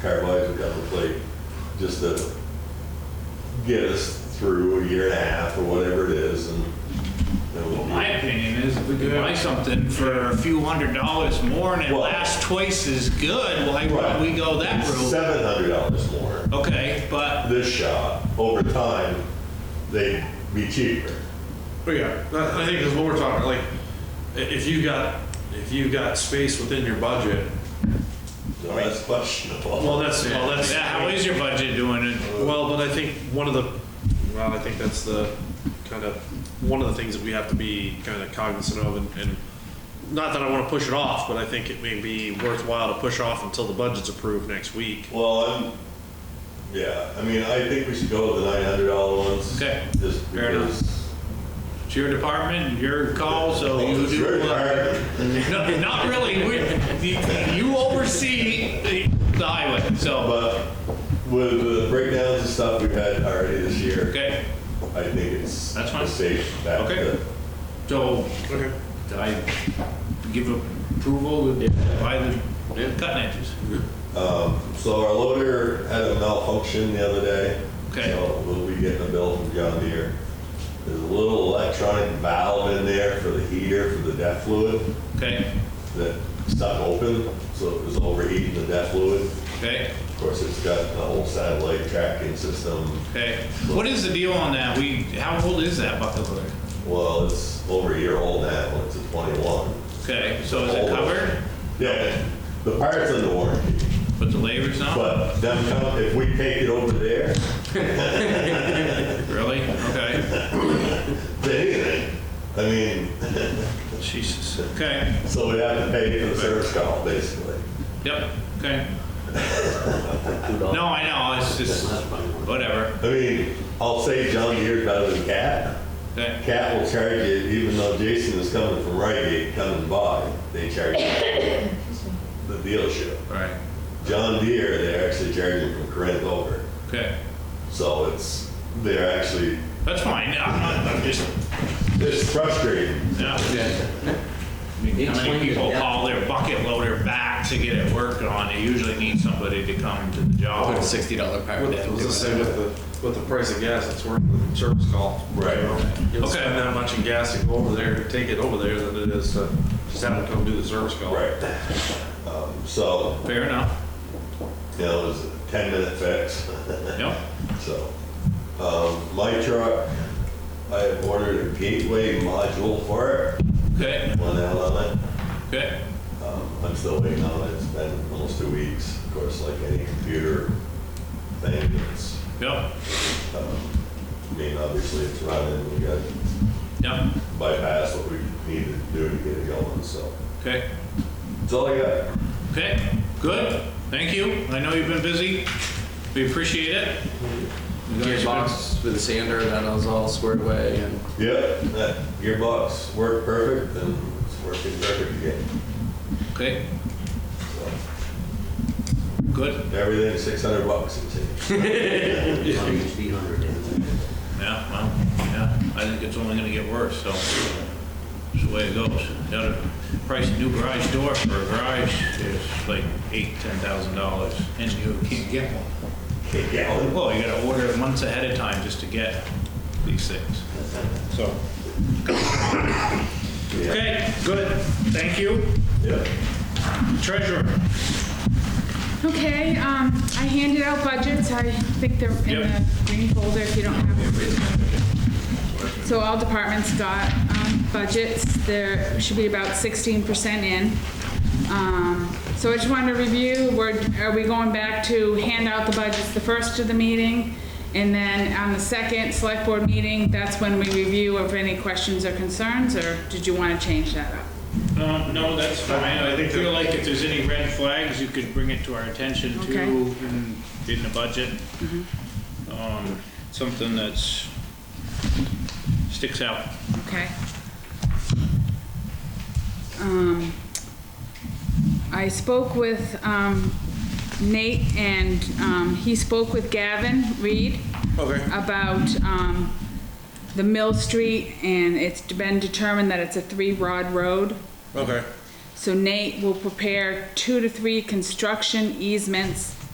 Carboys got to play just to get us through a year and a half or whatever it is and. then we'll Well, be- my opinion is if we could buy something for a few hundred dollars more and it Well- lasts twice as good, why Right. would we go that route? Seven hundred dollars more. Okay, but, This shot, over time, they'd be cheaper. But yeah, I I think is what we're talking, like, i- if you got, if you got space within your budget, No, that's questionable. well, that's, well, yeah, that's. how is your budget doing it? Well, but I think one of the, well, I think that's the kind of, one of the things that we have to be kind of cognizant of and, and not that I want to push it off, but I think it may be worthwhile to push off until the budget's approved next week. Well, I'm, yeah, I mean, I think we should go with the nine hundred dollar ones. Okay, Just fair enough. because. It's your department, your call, so Well, you it's do. very what- hard. No, Not really, we, the- you oversee the the highway, so, But with the breakdowns and stuff we've had already this year, okay, I think it's. That's fine. a Safe. bet Okay. that- so Okay. I give approval to buy the cutting edges. So our loader had a malfunction the other day. Okay. So we'll be getting a bill from John Deere. There's a little electronic valve in there for the heater, for the DEF fluid, Okay, that stuck open, so it was overheating the DEF fluid. okay, Of course, it's got the whole satellite tracking system. okay. What is the deal on that? We, how old is that bucket loader? Well, it's over a year old now, it's a 21. Okay, so is it covered? Yeah, the part's under warranty, But the labor's not? but them, com- if we take it over there, Really? Okay. anything, I mean, Jesus. Okay. So we have to pay for the service call, basically. Yep. Okay. No, I know. It's just whatever. I mean, I'll say John Deere's better than Cat. Okay. Cat will charge you, even though Jason is coming from Rite Aid, coming by, they charge you the dealership. All right. John Deere, they're actually charging from Corinth over. Okay. So it's, they're actually, That's fine. I'm not. I'm just. it's frustrating. No. I mean, How many people haul their bucket loader back to get it worked on? They usually need somebody to come to the job. Put a sixty dollar I power was down. gonna do it. say with the, with the price of gas, it's worth the service call. Right. You'll Okay. spend that much in gas to go over there, to take it over there than it is to just have to come do the service call. Um, So, Fair enough. you know, it was a 10-minute fix. Yep. So, um, my truck, I ordered a gateway module for it, Okay. one L on it. Okay. Um, I'm still waiting on it, it's been almost two weeks. Of course, like any computer thing, it's, Yep. um, I mean, obviously it's running, we got Yep. bypass what we needed to do to get it going, so. Okay. That's all I got. Okay, good. Thank you. I know you've been busy. We appreciate it. You guys Gearbox with a sander, and then I was all squared away, and Yep, that gearbox worked perfect and it's working perfect again. been- Okay, So good. Everything six hundred bucks, it seems. Yeah, well, yeah. I think it's only gonna get worse, so it's the way it goes. Now, the price of new garage door for a garage is like eight, ten thousand dollars, and you can't get one. Gallon. Well, you gotta order it months ahead of time just to get these things. So. Okay, good. Thank you. Yep. Treasurer. Okay, um, I handed out budgets, I think they're in the Yep. green folder if you don't have them. So all departments got, um, budgets, there should be about sixteen percent in. Um, so I just wanted to review, we're, are we going back to hand out the budgets the first of the meeting? And then on the second select board meeting, that's when we review if any questions or concerns, or did you wanna change that up? No, Um, no, that's fine. I think feel that- like if there's any red flags, you could bring it to our attention too Okay. in, in the budget. Um, something that's, sticks out. Okay. Um, I spoke with um, Nate, and um, he spoke with Gavin Reed Okay. about um, the Mill Street, and it's been determined that it's a three-rod road. Okay. So Nate will prepare two to three construction easements